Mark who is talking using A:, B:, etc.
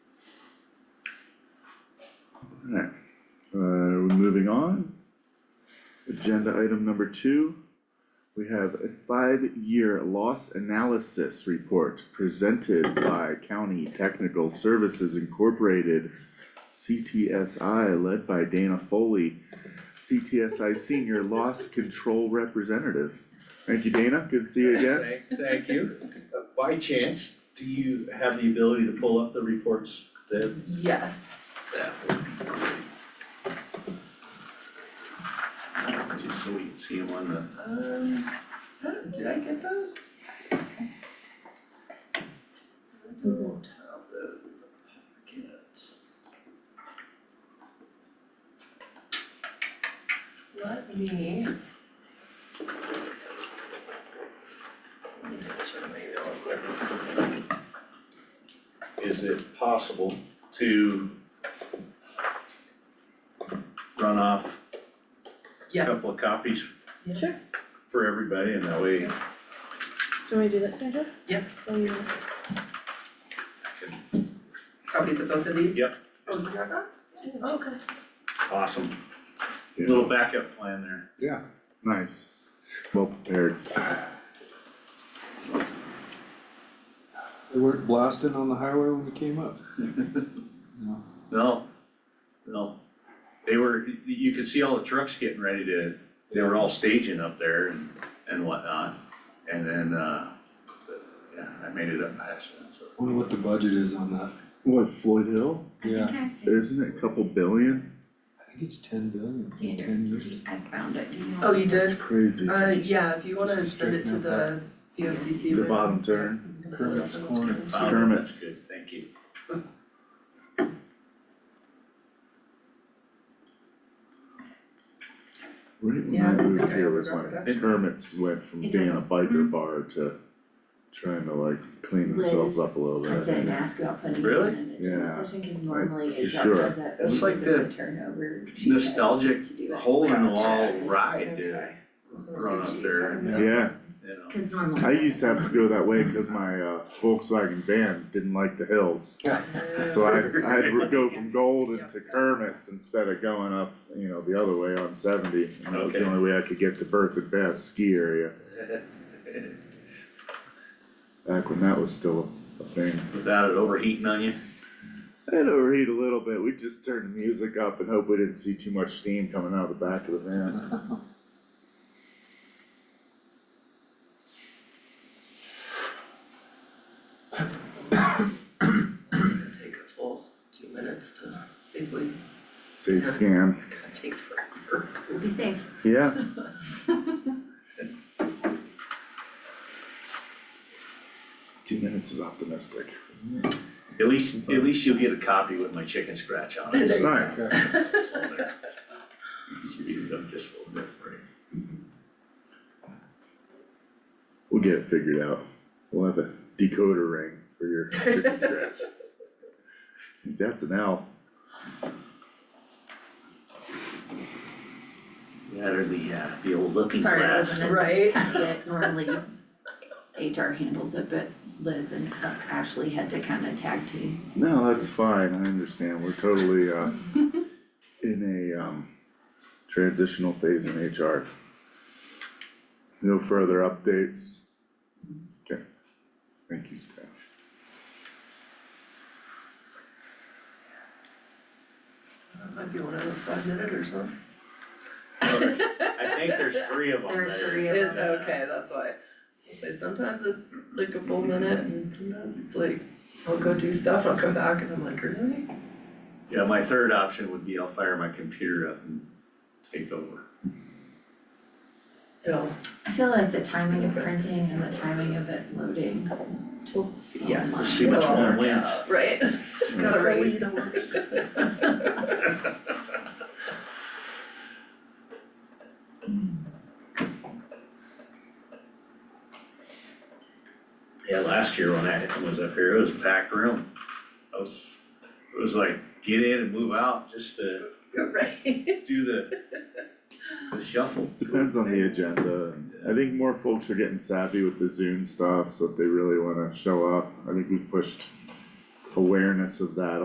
A: Alright, uh, moving on. Agenda item number two. We have a five-year loss analysis report presented by County Technical Services Incorporated. CTSI led by Dana Foley, CTSI Senior Loss Control Representative. Thank you, Dana, good to see you again.
B: Thank, thank you. Uh, By chance, do you have the ability to pull up the reports that,
C: Yes,
B: that would be great? Just so we can see them on the.
C: um, huh, did I get those? I don't have those in the packet. Let me. Let me check my email real quick.
B: is it possible to run off a
C: Yeah.
B: couple of copies
D: Sure,
B: for everybody and that way
D: do you want me to do that, Sandra?
C: Yeah.
D: So you,
C: Copies of both of these?
B: Yep.
C: Oh, you got that? Oh, Okay.
B: awesome,
A: Yeah.
B: little backup plan there.
A: Yeah. Nice, well prepared.
E: They weren't blasting on the highway when we came up.
B: No, no, they were, y- you could see all the trucks getting ready to, they were all staging up there and, and whatnot. And then, uh, yeah, I made it up past that, so.
E: Wonder what the budget is on that.
A: What, Floyd Hill?
E: Yeah,
F: Okay,
A: Isn't it a couple billion?
E: I think it's ten billion in
F: Theater.
E: ten years.
F: I found it, you know.
C: Oh, you did?
A: It's crazy.
C: Uh, yeah, if you wanna
E: Just to
C: send it to
E: straighten
C: the
E: out
C: VOCC.
A: The bottom turn.
E: Kermit's corner.
B: Found it, that's Good, thank you.
A: Right when
C: Yeah,
A: I
C: I think
A: moved
C: I
A: here was
C: remember
A: when
C: that.
A: the Kermit's went from
F: It
A: being a
F: doesn't-
A: biker
F: mhm.
A: bar to trying to like clean themselves
F: Liz
A: up a little bit.
F: Sent it and asked about putting it
B: Really?
F: in a general
A: Oh, Yeah.
F: session, cause normally it
A: sure.
F: does it,
B: That's
F: because
B: like
F: of
B: the
F: the turnover. she does
B: Nostalgic
F: to do it.
B: hole in the wall
C: Gotcha.
B: ride to
C: Okay.
B: run up there, and,
A: Yeah,
B: you know,
F: Cause normally.
A: I
F: it
A: used to have to go that way
F: doesn't.
A: because my uh, Volkswagen van didn't like the hills.
C: Yeah.
A: So I, I'd re- go from Golden to Kermit's instead of going up, you know, the other way on seventy. And that was the
B: Okay.
A: only way I could get to Bertha Bass ski area, back when that was still a thing.
B: without it overheating on you.
A: I'd overheat a little bit, we'd just turn the music up and hope we didn't see too much steam coming out of the back of the van.
C: It'll Take a full two minutes to safely,
A: Safe scan,
C: God, takes forever.
F: We'll be safe.
A: yeah, two minutes is optimistic.
B: At least, at least you'll get a copy with my chicken scratch on it.
C: There you go.
A: Nice.
B: It's all there. Speed it up just a little bit for you.
A: We'll get it figured out, we'll have a decoder ring for your chicken scratch. That's an L,
B: That or the, uh, the old looking
F: Sorry, I
B: glass.
F: wasn't
C: Right?
F: That normally HR handles it, but Liz and uh, Ashley had to kinda tag team.
A: no, that's fine, I understand, we're totally, uh, in a, um, transitional phase in HR. No further updates? Okay, thank you, staff.
C: That might be one of those five minute or something.
B: I think there's three of them
F: There's
B: there.
F: three of
C: It,
B: Yeah.
C: okay, that's why. I say sometimes it's like a full minute and sometimes it's like, I'll go do stuff, I'll come back and I'm like, really?
B: Yeah, my third option would be I'll fire my computer up and take over.
C: It'll,
F: I feel like the timing of printing and the timing of it loading, just
C: yeah.
F: online.
B: See which
C: it'll all
B: one
C: work
B: wins.
C: out, Right? It's
A: Yeah.
C: a race.
B: Yeah, last year when I was up here, it was a packed room. I was, it was like get in and move out just to
C: You're right.
B: do the, the shuffle.
A: Depends on the agenda, I think more folks are getting savvy with the Zoom stuff, so if they really wanna show up, I think we've pushed awareness of that